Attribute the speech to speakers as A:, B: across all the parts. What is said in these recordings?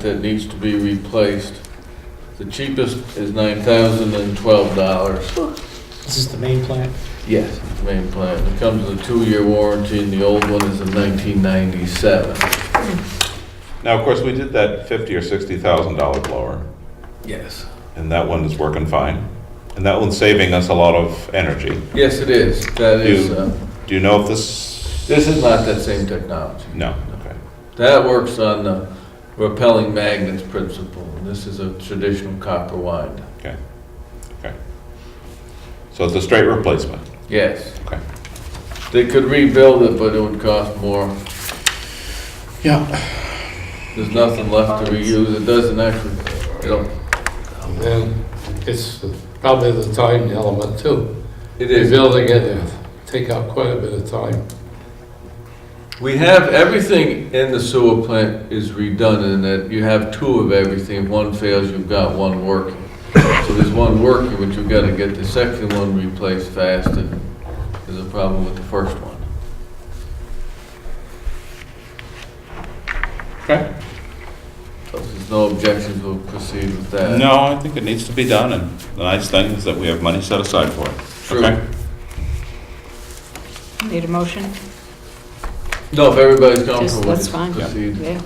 A: that needs to be replaced. The cheapest is nine thousand and twelve dollars.
B: This is the main plant.
A: Yes. Main plant. It comes with a two-year warranty and the old one is in nineteen ninety-seven.
C: Now, of course, we did that fifty or sixty thousand dollar blower,
A: Yes.
C: and that one is working fine, and that one's saving us a lot of energy.
A: Yes, it is. That is, uh,
C: Do you know if this?
A: this is not that same technology.
C: No. Okay.
A: That works on the repelling magnets principle. This is a traditional copper wind.
C: So it's a straight replacement.
A: Yes.
C: Okay.
A: They could rebuild it, but it would cost more.
C: Yeah.
A: There's nothing left to reuse. It doesn't actually, you know,
D: And it's probably the time element too.
A: it is.
D: Rebuilding it, it'd take up quite a bit of time.
A: We have, everything in the sewer plant is redundant, in that you have two of everything. If one fails, you've got one working. So there's one working, but you've got to get the second one replaced fast, and there's a problem with the first one.
C: Okay.
A: So if there's no objections, we'll proceed with that.
C: No, I think it needs to be done, and the nice thing is that we have money set aside for it.
A: True.
C: Okay.
E: Need a motion?
A: No, if everybody's comfortable
E: Just,
A: with
E: that's
A: it,
E: fine.
A: proceed.
E: Yeah.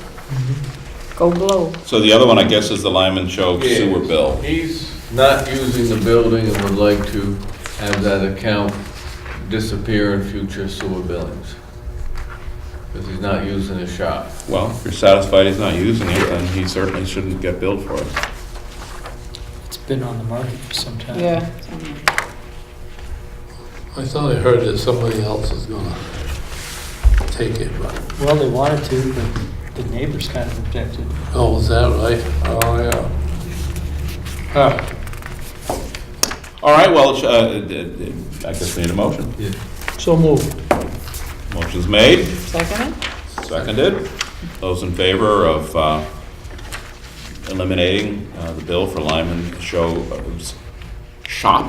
E: Go blow.
C: So the other one, I guess, is the Lyman Show
A: Yeah.
C: sewer bill.
A: He's not using the building and would like to have that account disappear in future sewer billings. Because he's not using his shop.
C: Well, if you're satisfied he's not using it, then he certainly shouldn't get billed for it.
B: It's been on the market for some time.
E: Yeah.
D: I thought I heard that somebody else is gonna take it, but,
B: Well, they wanted to, but the neighbors kind of objected.
D: oh, is that right? Oh, yeah. Huh.
C: All right, well, uh, I guess we need a motion.
B: So moved.
C: Motion's made.
E: Second it?
C: Seconded. Those in favor of uh, eliminating uh, the bill for Lyman Show uh, s- Shop,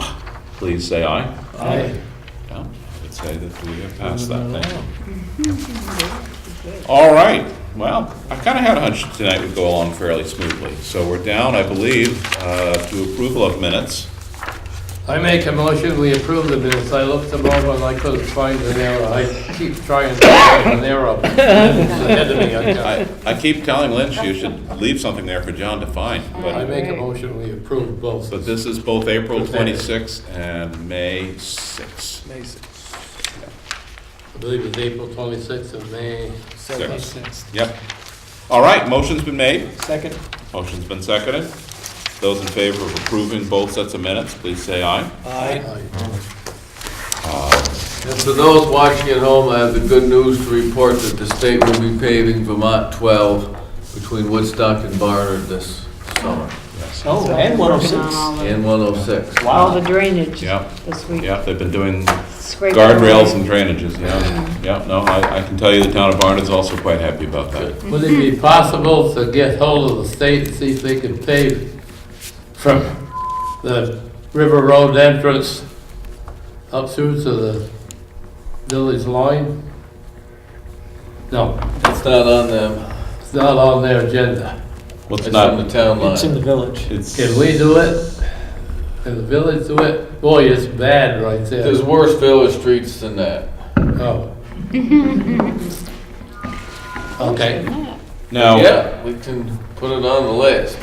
C: please say aye.
B: Aye.
C: Yeah, I would say that we have passed that thing. All right, well, I kind of had a hunch tonight would go along fairly smoothly. So we're down, I believe, uh, to approval of minutes.
D: I make a motion, we approve the minutes. I looked them over and I couldn't find an error. I keep trying to find an error. It's ahead of me, I got
C: I
D: it.
C: I keep telling Lynch you should leave something there for John to find, but...
D: I make a motion, we approve both.
C: But this is both April 26th and May 6th. May
D: I believe it's April 26th of May.
C: 6th.
B: Sixth.
C: Yep. All right, motion's been made.
B: Second.
C: Motion's been seconded. Those in favor of approving both sets of minutes, please say aye.
B: Aye.
A: And for those watching at home, I have the good news to report that the state will be paving Vermont 12 between Woodstock and Barnard this summer,
B: Oh, and one oh six.
A: and 106.
E: All the drainage
C: Yeah.
E: this week.
C: Yeah, they've been doing
E: Scrape
C: guardrails and drainages, yeah. Yeah, no, I, I can tell you the town of Barnard's also quite happy about that.
D: Would it be possible to get hold of the state and see if they can pave from the River Road entrance up through to the village line? No,
A: It's not on them,
D: it's not on their agenda.
C: Well, it's
A: it's on the
C: not,
A: town
B: It's in
A: line.
B: the village.
C: it's,
D: Can we do it? Can the village do it? Boy, it's bad right
A: There's
D: there.
A: worse village streets than that.
D: Oh. Okay.
C: now,
A: Yeah, we can put it on the list.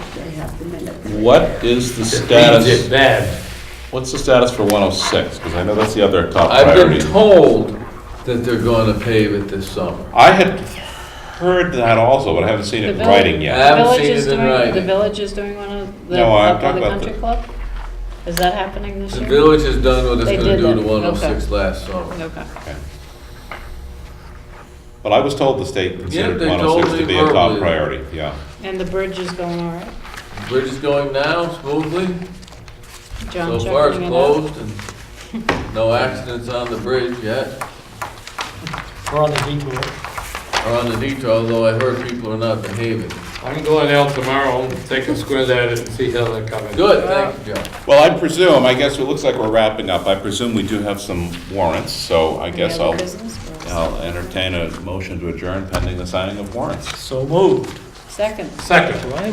C: what is the
D: Means it's
C: status,
D: bad.
C: what's the status for 106? Because I know that's the other top
A: I've
C: priority.
A: been told that they're gonna pave it this summer.
C: I had heard that also, but I haven't seen it in
E: The
C: writing
A: I
C: yet.
A: haven't
E: Village
A: seen
E: is
A: it in
E: doing, the
A: writing.
E: village is doing one of the,
C: No, I'm
E: up by
C: talking
E: the
C: about
E: country
C: the-
E: club? Is that happening this
A: The
E: year?
A: village has done what
E: They
A: it's gonna
E: did
A: do
E: that,
A: to
E: okay.
A: 106 last summer.
E: Okay.
C: But I was told the state considered
A: they
C: one
A: told
C: oh six
A: me
C: to be a top
A: verbally.
C: priority, yeah.
E: And the bridge is going all right?
A: Bridge is going now smoothly.
E: John
A: So far, it's
E: checking it out?
A: closed and no accidents on the bridge yet,
B: We're on the detour.
A: or on the detour, although I heard people are not behaving.
D: I'm going out tomorrow, take a squint at it and see how they're coming.
A: Good, thank you, John.
C: Well, I presume, I guess it looks like we're wrapping up. I presume we do have some warrants, so I
E: Any
C: guess
E: other
C: I'll,
E: business for us?
C: I'll entertain a motion to adjourn pending the signing of warrants.
B: So moved.
E: Second.
D: Second.
B: Do I have